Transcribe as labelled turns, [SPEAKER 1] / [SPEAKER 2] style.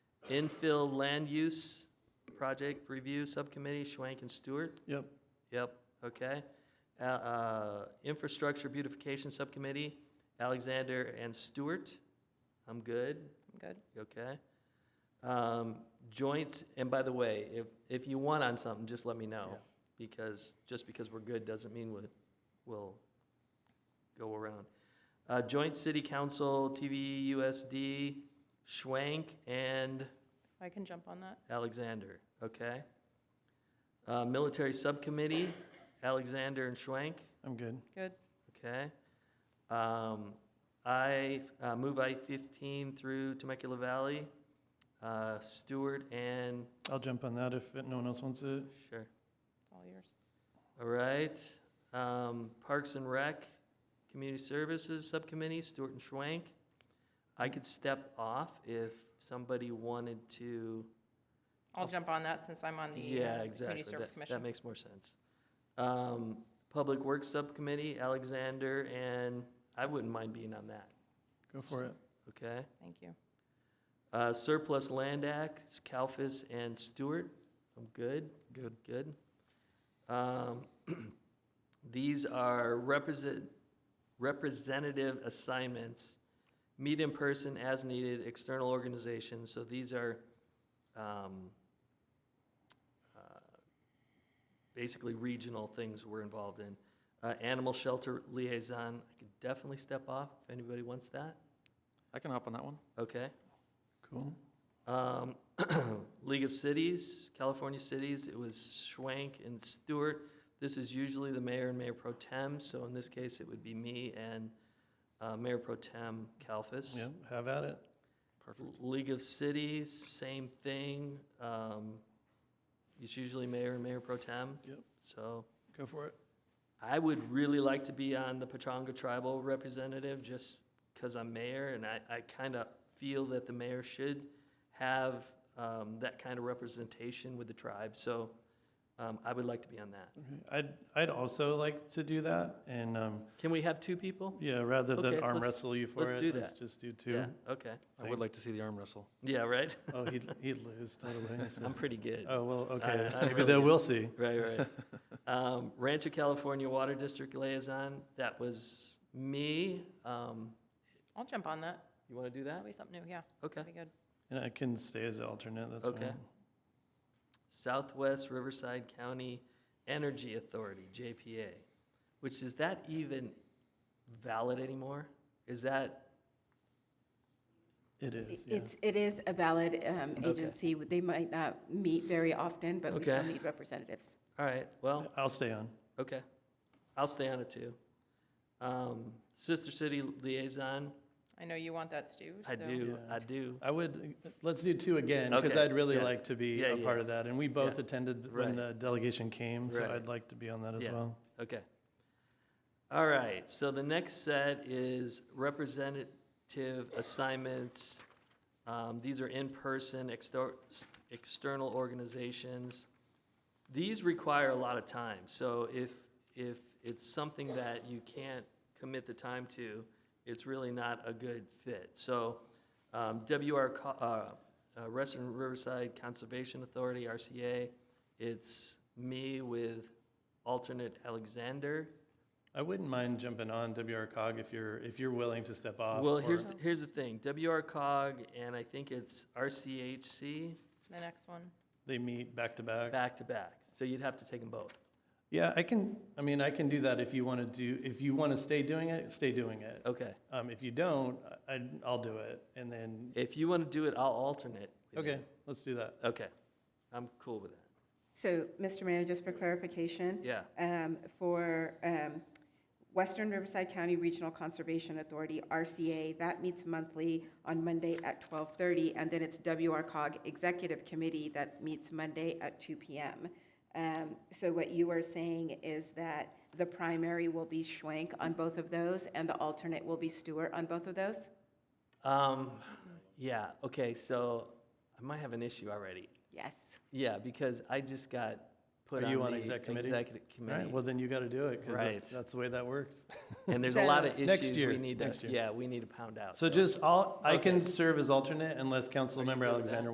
[SPEAKER 1] Infill Land Use Project Review Subcommittee, Schwank and Stewart?
[SPEAKER 2] Yep.
[SPEAKER 1] Yep, okay. Uh, uh, Infrastructure Beautification Subcommittee, Alexander and Stewart? I'm good.
[SPEAKER 3] I'm good.
[SPEAKER 1] You okay? Um, joints, and by the way, if, if you want on something, just let me know, because, just because we're good doesn't mean we'll, we'll go around. Uh, Joint City Council, TVUSD, Schwank and
[SPEAKER 3] I can jump on that.
[SPEAKER 1] Alexander, okay? Uh, Military Subcommittee, Alexander and Schwank,
[SPEAKER 2] I'm good.
[SPEAKER 3] Good.
[SPEAKER 1] okay? Um, I, uh, move I-15 through Temecula Valley, uh, Stewart and,
[SPEAKER 2] I'll jump on that if no one else wants it.
[SPEAKER 1] sure,
[SPEAKER 3] It's all yours.
[SPEAKER 1] all right. Um, Parks and Rec, Community Services Subcommittee, Stewart and Schwank. I could step off if somebody wanted to.
[SPEAKER 3] I'll jump on that since I'm on the
[SPEAKER 1] Yeah,
[SPEAKER 3] uh,
[SPEAKER 1] exactly.
[SPEAKER 3] Community Service
[SPEAKER 1] That- That
[SPEAKER 3] Commission.
[SPEAKER 1] makes more sense. Um, Public Works Subcommittee, Alexander, and I wouldn't mind being on that,
[SPEAKER 2] Go for it.
[SPEAKER 1] okay?
[SPEAKER 3] Thank you.
[SPEAKER 1] Uh, Surplus Land Act, Kalfis and Stewart, I'm good,
[SPEAKER 2] Good.
[SPEAKER 1] good. Um, These are represent, representative assignments, meet in person as needed, external organizations, so these are, um, uh, basically regional things we're involved in. Uh, Animal Shelter Liaison, I could definitely step off if anybody wants that,
[SPEAKER 4] I can hop on that one.
[SPEAKER 1] okay?
[SPEAKER 2] Cool.
[SPEAKER 1] Um, League of Cities, California Cities, it was Schwank and Stewart. This is usually the mayor and mayor pro tem, so in this case, it would be me and uh, Mayor pro tem Kalfas.
[SPEAKER 2] Yeah, have at it.
[SPEAKER 4] Perfect.
[SPEAKER 1] League of Cities, same thing. Um, It's usually mayor and mayor pro tem.
[SPEAKER 2] Yep.
[SPEAKER 1] So
[SPEAKER 2] Go for it.
[SPEAKER 1] I would really like to be on the Pechanga Tribal Representative just because I'm mayor and I, I kind of feel that the mayor should have um, that kind of representation with the tribe. So um, I would like to be on that.
[SPEAKER 2] Okay. I'd, I'd also like to do that. And, um,
[SPEAKER 1] Can we have two people?
[SPEAKER 2] yeah, rather than
[SPEAKER 1] Okay,
[SPEAKER 2] arm
[SPEAKER 1] let's-
[SPEAKER 2] wrestle you for
[SPEAKER 1] let's do
[SPEAKER 2] it, let's
[SPEAKER 1] that.
[SPEAKER 2] just do two.
[SPEAKER 1] Yeah, okay.
[SPEAKER 4] I would like to see the arm wrestle.
[SPEAKER 1] Yeah, right?
[SPEAKER 2] Oh, he'd, he'd lose totally. so-
[SPEAKER 1] I'm pretty good.
[SPEAKER 2] Oh, well, okay.
[SPEAKER 1] I
[SPEAKER 2] Maybe
[SPEAKER 1] really
[SPEAKER 2] then
[SPEAKER 1] am.
[SPEAKER 2] we'll see.
[SPEAKER 1] Right, right. Um, Rancho California Water District Liaison, that was me. Um,
[SPEAKER 3] I'll jump on that.
[SPEAKER 1] You want to do that?
[SPEAKER 3] That'll be something new, yeah.
[SPEAKER 1] Okay.
[SPEAKER 3] That'd be good.
[SPEAKER 2] And I can stay as alternate, that's
[SPEAKER 1] Okay.
[SPEAKER 2] fine.
[SPEAKER 1] Southwest Riverside County Energy Authority, JPA, which is that even valid anymore? Is that,
[SPEAKER 2] It
[SPEAKER 5] It-
[SPEAKER 2] is, yeah.
[SPEAKER 5] It's, it is a valid um, agency. They might not meet very often, but we still
[SPEAKER 1] Okay.
[SPEAKER 5] need representatives.
[SPEAKER 1] all right, well,
[SPEAKER 2] I'll stay on.
[SPEAKER 1] okay. I'll stay on it too. Um, Sister City Liaison,
[SPEAKER 3] I know you want that, Stu.
[SPEAKER 1] I
[SPEAKER 3] so-
[SPEAKER 1] do,
[SPEAKER 2] Yeah.
[SPEAKER 1] I do.
[SPEAKER 2] I would, let's do two again, because
[SPEAKER 1] Okay,
[SPEAKER 2] I'd really
[SPEAKER 1] yeah.
[SPEAKER 2] like to be
[SPEAKER 1] Yeah,
[SPEAKER 2] a
[SPEAKER 1] yeah.
[SPEAKER 2] part of that. And we both
[SPEAKER 1] Yeah.
[SPEAKER 2] attended when
[SPEAKER 1] Right.
[SPEAKER 2] the delegation came, so
[SPEAKER 1] Right.
[SPEAKER 2] I'd like to be on that as
[SPEAKER 1] Yeah.
[SPEAKER 2] well.
[SPEAKER 1] Okay. All right, so the next set is representative assignments. Um, These are in-person, exter- external organizations. These require a lot of time, so if, if it's something that you can't commit the time to, it's really not a good fit. So um, WR, Co- uh, uh, Western Riverside Conservation Authority, RCA, it's me with alternate Alexander.
[SPEAKER 2] I wouldn't mind jumping on WR cog if you're, if you're willing to step off.
[SPEAKER 1] Well,
[SPEAKER 2] or-
[SPEAKER 1] here's, the- here's the thing, WR cog and I think it's RCHC,
[SPEAKER 3] The next one.
[SPEAKER 2] They meet back to back.
[SPEAKER 1] back to back. So you'd have to take them both.
[SPEAKER 2] Yeah, I can, I mean, I can do that if you want to do, if you want to stay doing it, stay doing it.
[SPEAKER 1] Okay.
[SPEAKER 2] Um, if you don't, I, I'll do it. And then,
[SPEAKER 1] If you want to do it, I'll alternate. with you.
[SPEAKER 2] okay, let's do that.
[SPEAKER 1] Okay. I'm cool with that.
[SPEAKER 5] So, Mr. Mayor, just for clarification,
[SPEAKER 1] Yeah.
[SPEAKER 5] um, for um, Western Riverside County Regional Conservation Authority, RCA, that meets monthly on Monday at 12:30, and then it's WRCOG Executive Committee that meets Monday at 2 PM. Um, So what you are saying is that the primary will be Schwank on both of those, and the alternate will be Stewart on both of those?
[SPEAKER 1] Um, yeah, okay, so I might have an issue already.
[SPEAKER 5] Yes.
[SPEAKER 1] Yeah, because I just got put
[SPEAKER 2] Are
[SPEAKER 1] on
[SPEAKER 2] you on
[SPEAKER 1] the
[SPEAKER 2] exec committee?
[SPEAKER 1] Executive
[SPEAKER 2] All right,
[SPEAKER 1] committee.
[SPEAKER 2] well, then you got to do it because
[SPEAKER 1] Right.
[SPEAKER 2] that's, that's the way that works.
[SPEAKER 1] And there's a lot of
[SPEAKER 5] So-
[SPEAKER 2] Next
[SPEAKER 1] issues
[SPEAKER 2] year,
[SPEAKER 1] we need to,
[SPEAKER 2] next year.
[SPEAKER 1] yeah, we need to pound out.
[SPEAKER 2] So just, I'll, I
[SPEAKER 1] Okay.
[SPEAKER 2] can serve as alternate unless Councilmember Alexander